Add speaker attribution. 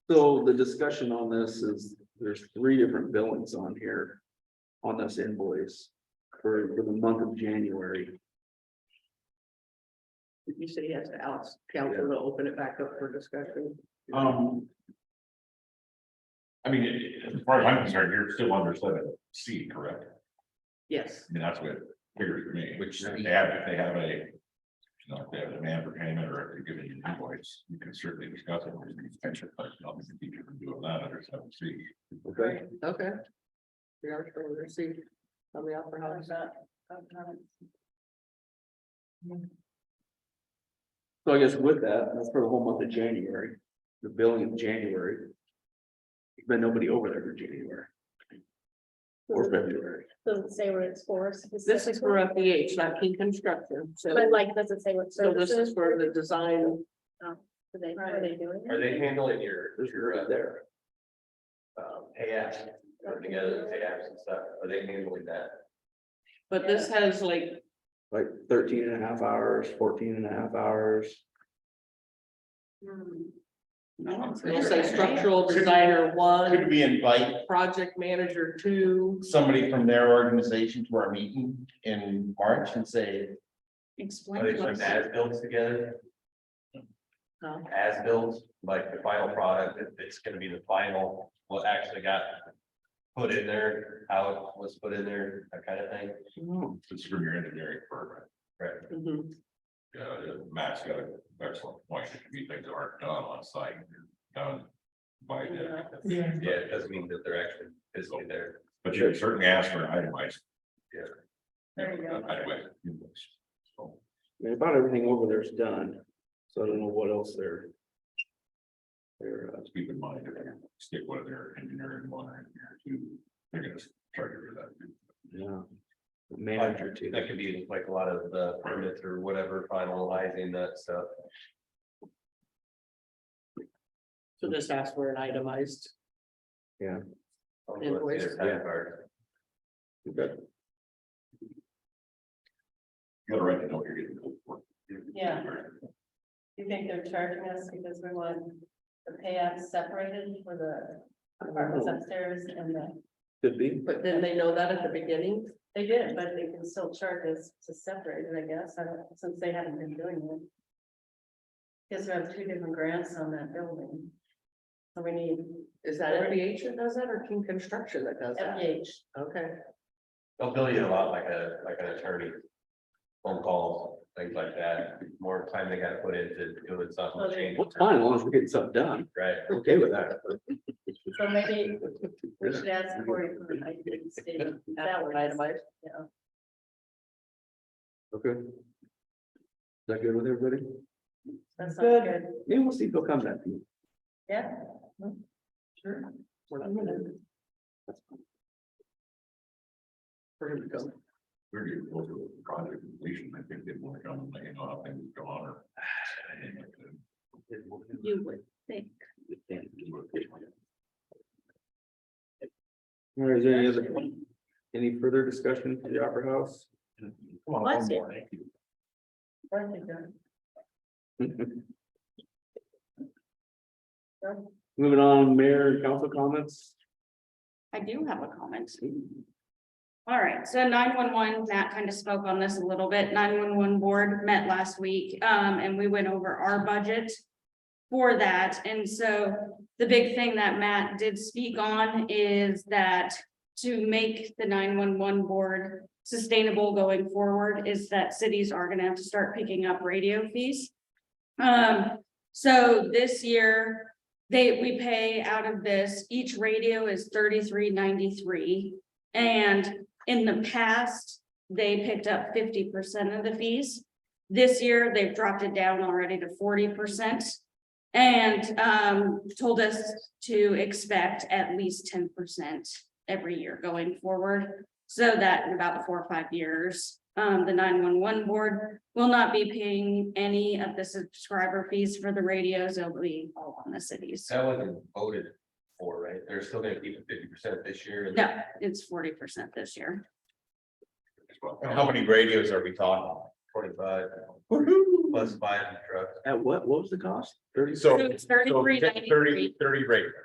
Speaker 1: So the discussion on this is, there's three different billings on here. On this invoice for, for the month of January.
Speaker 2: Did you say yes to Alex Council to open it back up for discussion?
Speaker 3: Um. I mean, i- i- as far as I'm concerned, you're still under seven C, correct?
Speaker 2: Yes,
Speaker 3: I mean, that's what it figures for me, which
Speaker 4: Which-
Speaker 3: if they have, if they have a. You know, if they have a demand for payment or if they're giving you an invoice, you can certainly discuss it. with the pension, but obviously you can do that under seven C.
Speaker 1: Okay,
Speaker 2: okay. We are still under C. On the upper house.
Speaker 1: so I guess with that, that's for the whole month of January, the billing of January. Been nobody over there for January or February.
Speaker 5: Doesn't say where it's for.
Speaker 2: This is for
Speaker 5: specifically,
Speaker 2: FDH, not King Construction, so,
Speaker 5: But like, does it say what
Speaker 2: so this is
Speaker 5: services?
Speaker 2: for the design.
Speaker 5: Do they, are they doing?
Speaker 4: Are they handling your,
Speaker 1: There's your right there.
Speaker 4: um, pay apps, or together, pay apps and stuff, are they handling that?
Speaker 2: But this has like,
Speaker 1: Like 13 and a half hours, 14 and a half hours.
Speaker 6: Hmm,
Speaker 2: it'll say structural designer
Speaker 7: Could
Speaker 2: one,
Speaker 7: we invite
Speaker 2: project manager two.
Speaker 7: somebody from their organization to our meeting in March and say,
Speaker 4: Are they putting as builds together,
Speaker 2: No.
Speaker 4: as builds, like the final product, if it's gonna be the final, what actually got. Put in there, how it was put in there, that kind of thing,
Speaker 3: It's from your engineering firm.
Speaker 4: right?
Speaker 2: Mhm.
Speaker 3: Yeah, Matt's got an excellent point. If you think they aren't done on site, they're done by then.
Speaker 2: Yeah.
Speaker 4: Yeah, it doesn't mean that they're actually physically there.
Speaker 3: But you can certainly ask for an itemized.
Speaker 4: Yeah.
Speaker 2: There you go.
Speaker 3: Itemized invoice. So,
Speaker 1: I mean, about everything over there is done, so I don't know what else they're. They're, uh,
Speaker 3: Let's keep in mind, if they stick one of their engineering one, or engineer two, they're gonna charge you for that.
Speaker 1: yeah. Manager too.
Speaker 4: That could be like a lot of the permits or whatever, finalizing that stuff.
Speaker 2: So just ask for an itemized. Invoice.
Speaker 4: Time card.
Speaker 3: You gotta write the note you're getting. billed for.
Speaker 6: Yeah. You think they're charging us because we want the payouts separated for the apartments
Speaker 4: Oh.
Speaker 6: upstairs and the,
Speaker 1: Could be,
Speaker 2: But then they know that at the beginning.
Speaker 6: they did, but they can still charge us to separate it, I guess, I don't- since they haven't been doing it. Because we have two different grants on that building. So we need
Speaker 2: Is that FDH that does that or King Construction that does that?
Speaker 6: FEH,
Speaker 2: Okay.
Speaker 4: They'll bill you a lot like a, like an attorney. Phone calls, things like that, more time they gotta put into doing something, change,
Speaker 1: well, it's fine, as long as we're getting stuff done,
Speaker 4: right?
Speaker 1: I'm okay with that.
Speaker 6: so maybe we should ask Cory for an ID statement. That would,
Speaker 2: Itemized.
Speaker 6: yeah.
Speaker 1: Okay. Is that good with everybody?
Speaker 6: That sounds
Speaker 2: Good.
Speaker 6: good,
Speaker 1: Yeah, we'll see if they'll come back to you.
Speaker 6: yeah.
Speaker 2: Sure. We're not gonna. We're gonna go.
Speaker 3: We're getting close to the project completion. I think they want to come and let you know how things go on or.
Speaker 6: You would.
Speaker 1: All right, is there any other, any further discussion for the Opera House?
Speaker 3: Well,
Speaker 6: Bless
Speaker 3: one
Speaker 6: you.
Speaker 3: more.
Speaker 6: Aren't they done?
Speaker 1: Moving on, mayor and council comments.
Speaker 8: I do have a comment. All right, so nine one one, Matt kind of spoke on this a little bit. Nine one one board met last week, um, and we went over our budget. For that, and so the big thing that Matt did speak on is that to make the nine one one board. Sustainable going forward is that cities are gonna have to start picking up radio fees. Um, so this year, they, we pay out of this, each radio is thirty-three ninety-three. And in the past, they picked up fifty percent of the fees. This year, they've dropped it down already to forty percent. And um, told us to expect at least ten percent every year going forward. So that in about four or five years, um, the nine-one-one board will not be paying any of the subscriber fees for the radios. It'll be all on the cities.
Speaker 4: That wasn't voted for, right? They're still gonna keep it fifty percent this year. and-
Speaker 8: No, it's forty percent this year.
Speaker 3: Just want-
Speaker 7: And how many radios are we talking?
Speaker 4: Twenty-five.
Speaker 9: plus buying the truck.
Speaker 4: At what, what was the cost? Thirty?
Speaker 8: So.
Speaker 1: So it's 33.93.
Speaker 8: Thirty, thirty rate.